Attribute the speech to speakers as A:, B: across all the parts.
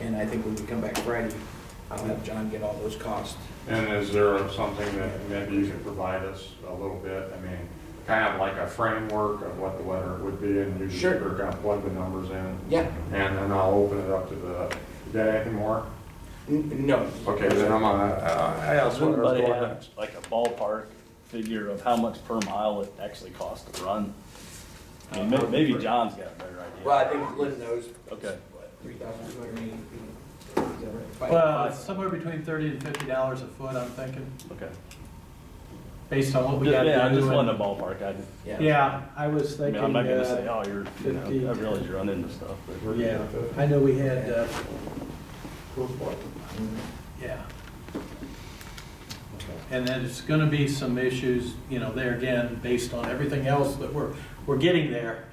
A: I think when we come back Friday, I'll have John get all those costs.
B: And is there something that maybe you can provide us a little bit? I mean, kind of like a framework of what the letter would be and you just
A: Sure.
B: are going to plug the numbers in?
A: Yeah.
B: And then I'll open it up to the, is that anything more?
A: N- No,
B: Okay, then I'm gonna, uh, I asked what I was
C: Everybody
B: going
C: have
B: next.
C: like a ballpark figure of how much per mile it actually costs to run? I mean, may- maybe John's got a better idea.
A: well, I think Lynn knows.
C: Okay.
A: Three thousand two hundred and eighty.
D: Well, it's somewhere between thirty and fifty dollars a foot, I'm thinking,
C: Okay.
D: based on what we
C: Yeah,
D: gotta do.
C: yeah, I just
D: and-
C: wanted a ballpark. I, didn't-
D: Yeah, I was
C: I mean, I'm
D: thinking,
C: not gonna say,
D: uh,
C: oh, you're, you know, I
D: 50.
C: realize you're running into stuff, but we're.
D: yeah, I know we had, uh, yeah. And then it's gonna be some issues, you know, there again, based on everything else that we're, we're getting there.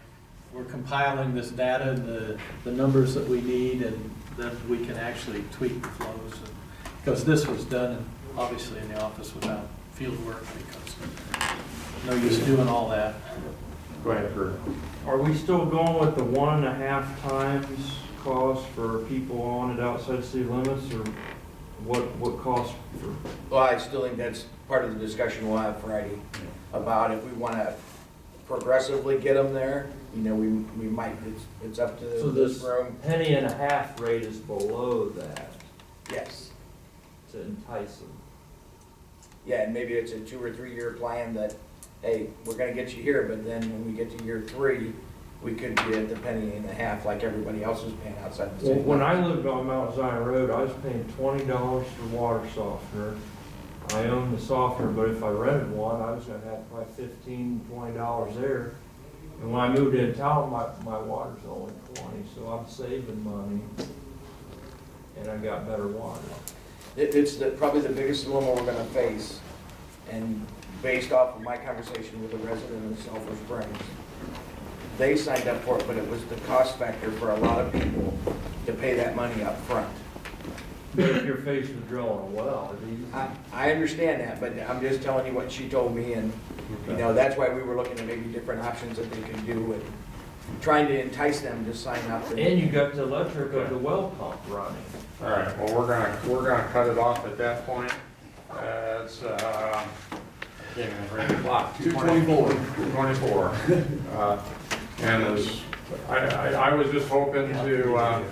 D: We're compiling this data and the, the numbers that we need, and then we can actually tweak the flows. and- Because this was done, obviously, in the office without field work, because no use doing all that.
B: Go ahead, Kurt.
E: Are we still going with the one and a half times cost for people on and outside city limits, or what, what cost for?
A: Well, I still think that's part of the discussion we'll have Friday about if we want to progressively get them there, you know, we, we might, it's, it's up to
E: So
A: this
E: this-
A: room.
E: Penny and a half rate is below that
A: Yes.
E: to entice them.
A: Yeah, and maybe it's a two or three year plan that, hey, we're gonna get you here, but then when we get to year three, we could be at the penny and a half like everybody else is paying outside the
E: Well,
A: city.
E: when I lived on Mount Zion Road, I was paying twenty dollars for water softener. I owned the softener, but if I rented one, I was gonna have probably fifteen, twenty dollars there. And when I moved in town, my, my water's only twenty, so I'm saving money. And I got better water.
A: It, it's the, probably the biggest dilemma we're gonna face, and based off of my conversation with a resident of Sulphur Springs, they signed up for it, but it was the cost factor for a lot of people to pay that money up front.
E: But if you're faced with drilling a well, it'd be-
A: I, I understand that, but I'm just telling you what she told me, and, you know, that's why we were looking at maybe different options that they could do, and trying to entice them to sign up. and-
E: and you got the electric of the well pump running.
B: All right, well, we're gonna, we're gonna cut it off at that point. Uh, It's, uh, I can't even read the clock.
F: 224.
B: 24. Uh, And as, I, I I was just hoping to, uh,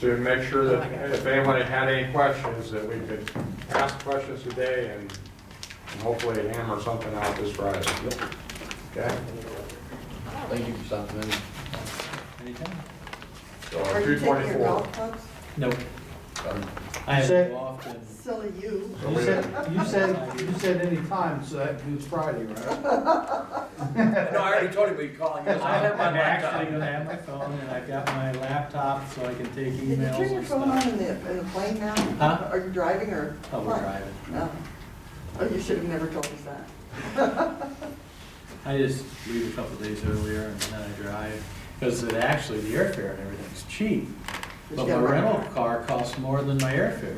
B: to make sure that if anybody had any questions, that we could ask questions today and and hopefully hammer something out this Friday. Okay?
F: Thank you for stopping in.
D: Anytime?
B: So
G: Are you taking your
B: 224.
G: golf clubs?
D: No, I have to go off and
G: Silly you.
B: So
F: You
B: we-
F: said, you said, you said any time, so that includes Friday, right?
A: No, I already told him we'd call him.
D: I have my actually gonna have my phone and I've got my laptop so I can take
G: Did you turn
D: emails
G: your
D: and
G: phone on
D: stuff.
G: in the, in the plane now?
D: Huh?
G: Are you driving or?
D: Oh, we're
G: what?
D: driving.
G: No. Oh, you should have never told us that.
D: I just leave a couple days earlier and then I drive, because it actually, the airfare and everything's cheap.
G: Just
D: But my
G: get a
D: rental
G: rental
D: car costs more than my airfare.